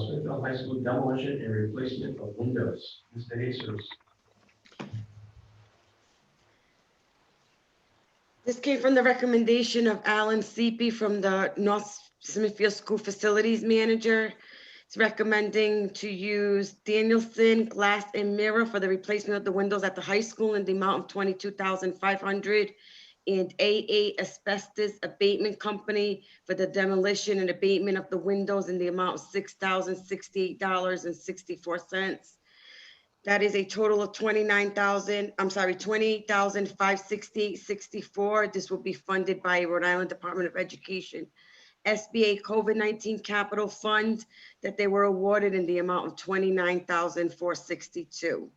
Rockland High School demolition and replacement of windows. Mr. Jesus. This came from the recommendation of Alan Seepy from the North Smithfield School Facilities Manager. It's recommending to use Danielson Glass and Mirror for the replacement of the windows at the high school in the amount of twenty-two thousand five hundred and AA Asbestos Abatement Company for the demolition and abatement of the windows in the amount of six thousand sixty-eight dollars and sixty-four cents. That is a total of twenty-nine thousand, I'm sorry, twenty-eight thousand five sixty-eight sixty-four. This will be funded by Rhode Island Department of Education. SBA COVID-nineteen capital fund that they were awarded in the amount of twenty-nine thousand four sixty-two.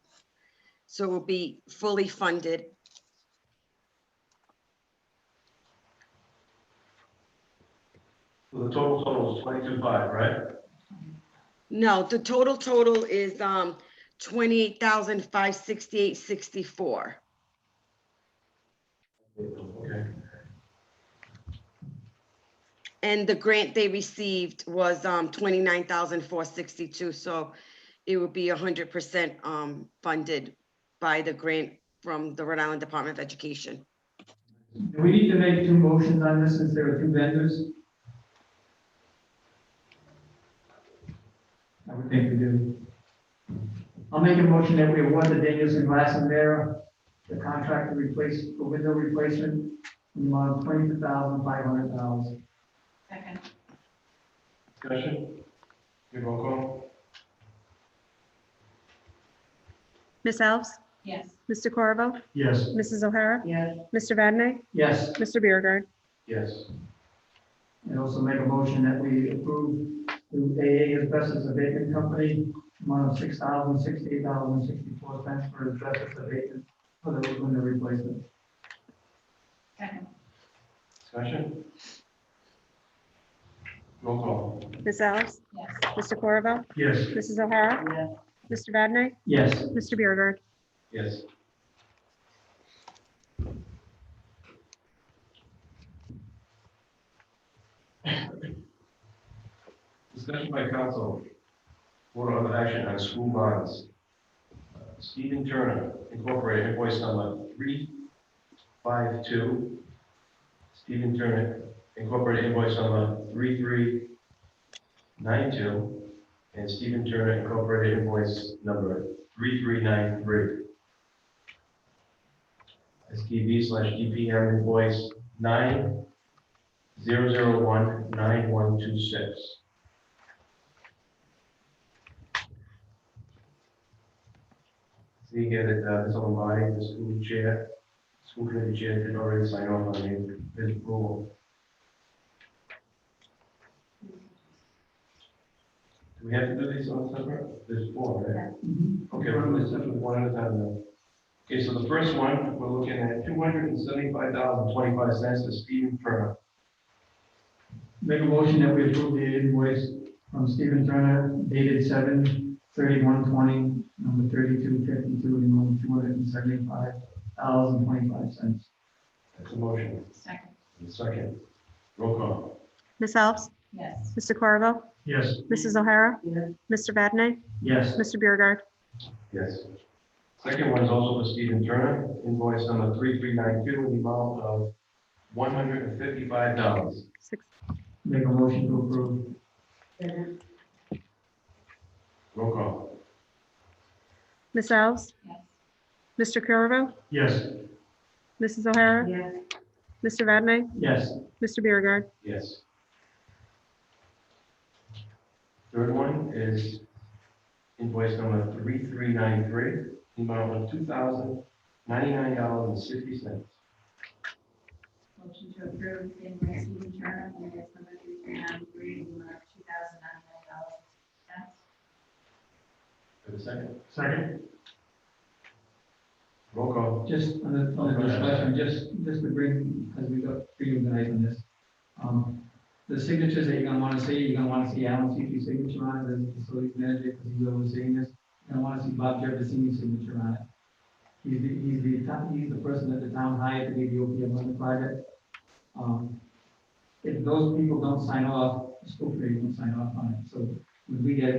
So it will be fully funded. So the total total is twenty-two five, right? No, the total total is um twenty-eight thousand five sixty-eight sixty-four. Okay. And the grant they received was um twenty-nine thousand four sixty-two, so it would be hundred percent um funded by the grant from the Rhode Island Department of Education. Do we need to make two motions on this since there are two vendors? I would think we do. I'll make a motion that we award the Danielson Glass and Mirror, the contract to replace, the window replacement, in the amount of twenty-two thousand five hundred dollars. Second, Discussion? Your roll call? Miss Alves? yes. Mr. Corvo? Yes. Mrs. O'Hara? Yes. Mr. Vadeney? Yes, Mr. Beauregard? Yes. and also make a motion that we approve the AA asbestos abatement company, amount of six thousand sixty-eight dollars and sixty-four cents for asbestos abatement for the window replacement. Second, Discussion? Roll call? Miss Alves? yes. Mr. Corvo? Yes. Mrs. O'Hara? Yes. Mr. Vadeney? Yes, Mr. Beauregard? Yes. Discussion by council. Board of action on school bonds. Uh, Stephen Turner Incorporated invoice number three five two. Stephen Turner Incorporated invoice number three three nine two. And Stephen Turner Incorporated invoice number 3393. SDB slash DPM invoice 90019126. See again, that uh, this on my, the school chair, school committee chair did already sign off on it, this rule. Do we have to do these on separate? There's four, right? Okay, we're going to start with one at a time then. Okay, so the first one, we're looking at two hundred and seventy-five thousand twenty-five cents to Stephen Turner. make a motion that we approve the invoice from Stephen Turner dated seven thirty-one twenty, number thirty-two fifty-two, in the amount of two hundred and seventy-five thousand twenty-five cents. That's a motion. Second, And second, roll call. Miss Alves? yes. Mr. Corvo? Yes. Mrs. O'Hara? Yes. Mr. Vadeney? Yes, Mr. Beauregard? Yes. Second one is also for Stephen Turner, invoice number three-three-nine-two, in the amount of one hundred and fifty-five dollars. Six. make a motion to approve. Roll call. Miss Alves? Yes. Mr. Corvo? Yes. Mrs. O'Hara? Yes. Mr. Vadeney? Yes, Mr. Beauregard? Yes. Third one is invoice number three-three-nine-three, the amount of two thousand ninety-nine dollars and sixty cents. Motion to approve the invoice to return on invoice number three three nine three, in the amount of two thousand nine hundred dollars. Yes. For the second, second, roll call. just on the, on the discussion, just, just to bring, because we got three of guys on this. Um, the signatures that you're gonna wanna see, you're gonna wanna see Alan Seatley's signature on it, as the facilities manager, because he's overseeing this. You're gonna wanna see Bob Jefferson's signature on it. He's the, he's the, town- he's the person that the town hired to be the OPM on the project. Um, if those people don't sign off, the school committee won't sign off on it, so when we get it,